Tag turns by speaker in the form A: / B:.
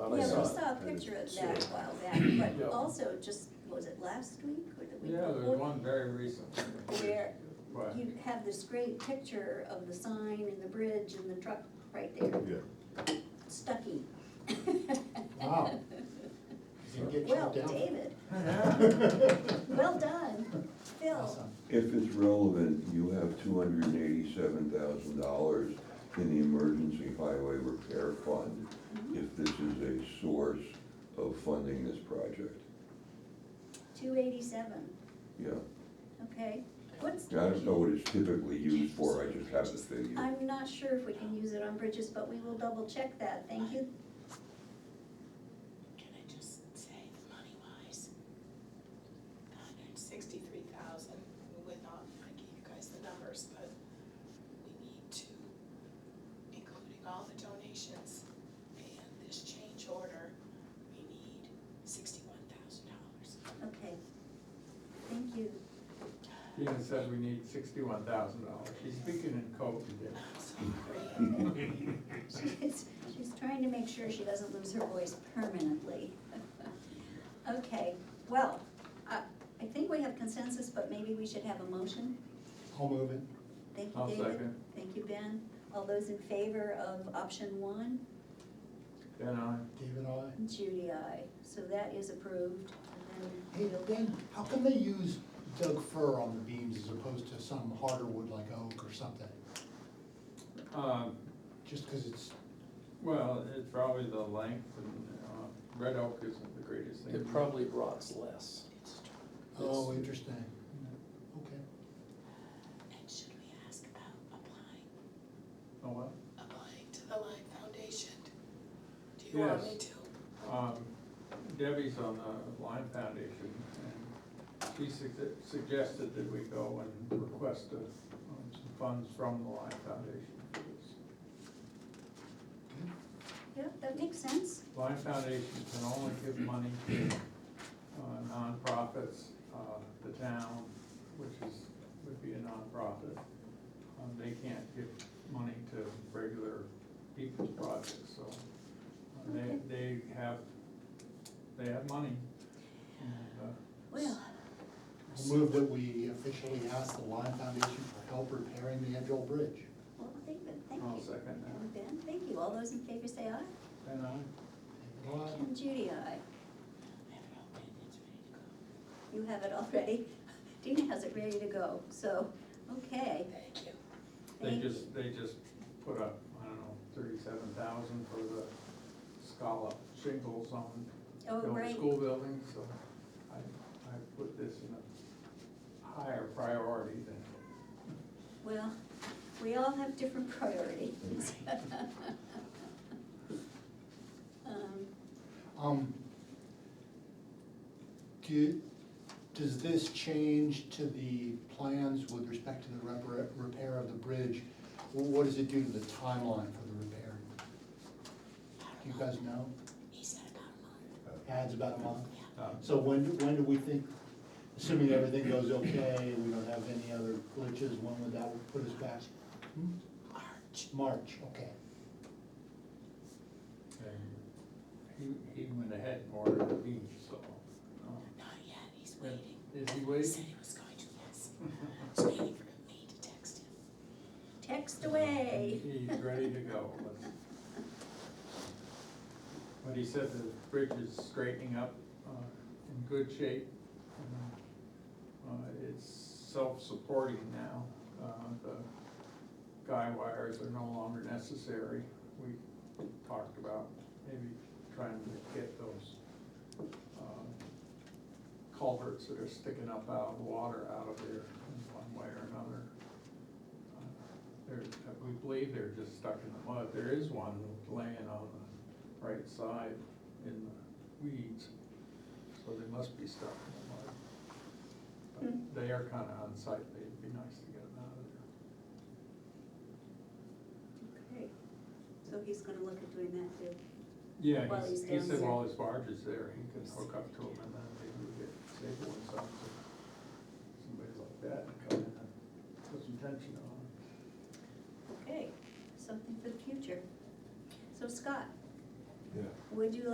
A: saw.
B: Yeah,
A: saw
B: we
A: it.
B: saw a picture of that a while back,
A: Yeah.
B: but also just, was it last week or the week
A: Yeah,
B: before?
A: there's one very recent.
B: Where
A: But,
B: you have this great picture of the sign and the bridge and the truck right there,
C: Yeah,
B: Stucky.
D: Wow. You can get
B: Well,
D: shut down.
B: David, well done, Phil.
D: Awesome.
C: if it's relevant, you have two hundred and eighty-seven thousand dollars in the emergency highway repair fund if this is a source of funding this project,
B: Two eighty-seven,
C: yeah.
B: okay, what's,
C: I don't know what it's typically used for, I just have the figure.
B: I'm not sure if we can use it on bridges, but we will double check that, thank you.
E: Can I just say, money wise, hundred and sixty-three thousand, with not, I gave you guys the numbers, but we need to, including all the donations and this change order, we need sixty-one thousand dollars.
B: Okay, thank you.
A: Gina said we need sixty-one thousand dollars. She's speaking in code today.
E: I'm so afraid.
B: She's, she's trying to make sure she doesn't lose her voice permanently. Okay, well, I, I think we have consensus, but maybe we should have a motion.
D: I'll move it.
B: Thank you,
A: I'll
B: David.
A: second.
B: Thank you, Ben. All those in favor of option one?
A: Then I,
D: David, I.
B: Judy, I. So that is approved. And
D: Hey,
B: then we'll-
D: Ben, how come they use Doug fir on the beams as opposed to some harder wood like oak or something?
A: um,
D: Just because it's,
A: well, it's probably the length and, uh, red oak isn't the greatest thing.
F: It probably rots less.
E: It's true.
D: oh, interesting, okay.
E: And should we ask about applying,
A: Oh, what?
E: applying to the Lime Foundation? Do you want me
A: Yes.
E: to?
A: Um, Debbie's on the Lime Foundation, and she sug- suggested that we go and request uh, um, some funds from the Lime Foundation for this.
B: Yeah, that makes sense.
A: Lime Foundation can only give money to uh, nonprofits, uh, the town, which is, would be a nonprofit. Um, They can't give money to regular people's projects, so uh, they, they have, they have money. And, uh,
B: Well,
D: I'll move that we officially ask the Lime Foundation for help repairing the Edgell Bridge.
B: well, David, thank
A: I'll
B: you.
A: second
B: And Ben, thank you. All those in favor say aye.
A: that. And I,
D: David, aye.
B: And Judy, I.
E: I have it all written, it's ready to go.
B: You have it already. Dina has it ready to go, so, okay.
E: Thank you.
A: they
B: Thank-
A: just, they just put up, I don't know, thirty-seven thousand for the scallop shingles on
B: Oh,
A: build a
B: right,
A: school building, so I, I put this in a higher priority than,
B: well, we all have different priorities. Um,
D: Um, do, does this change to the plans with respect to the repar- repair of the bridge? What does it do to the timeline for the repair? Do you guys know?
E: He said about a month.
D: Adds about a month?
A: um,
D: So when, when do we think, assuming everything goes okay, we don't have any other glitches, when would that put us back?
E: March.
D: March, okay.
A: and he, he went ahead and ordered me, so. um,
E: Not yet, he's waiting.
A: Is he
E: He
A: waiting?
E: said he was going to, yes. He's waiting for me to text him.
B: Text away.
A: He's ready to go, let's. But he said the bridge is straightening up, uh, in good shape. and, Uh, it's self-supporting now, uh, the guy wires are no longer necessary. We talked about maybe trying to get those, um, culverts that are sticking up out of the water out of there in one way or another. They're, we believe they're just stuck in the mud. There is one laying on the right side in the weeds, so they must be stuck in the mud.
B: Hmm.
A: But They are kinda unsightly, it'd be nice to get them out of there.
B: Okay, so he's gonna look at doing that too.
A: Yeah,
B: While
A: he's-
B: he's
A: he
B: down
A: said
B: there.
A: while his barge is there, he can hook up to them and then maybe we get stable ones up to somebody like that and come in and put some tension on it.
B: Okay, something for the future. So Scott,
C: Yeah.
B: would you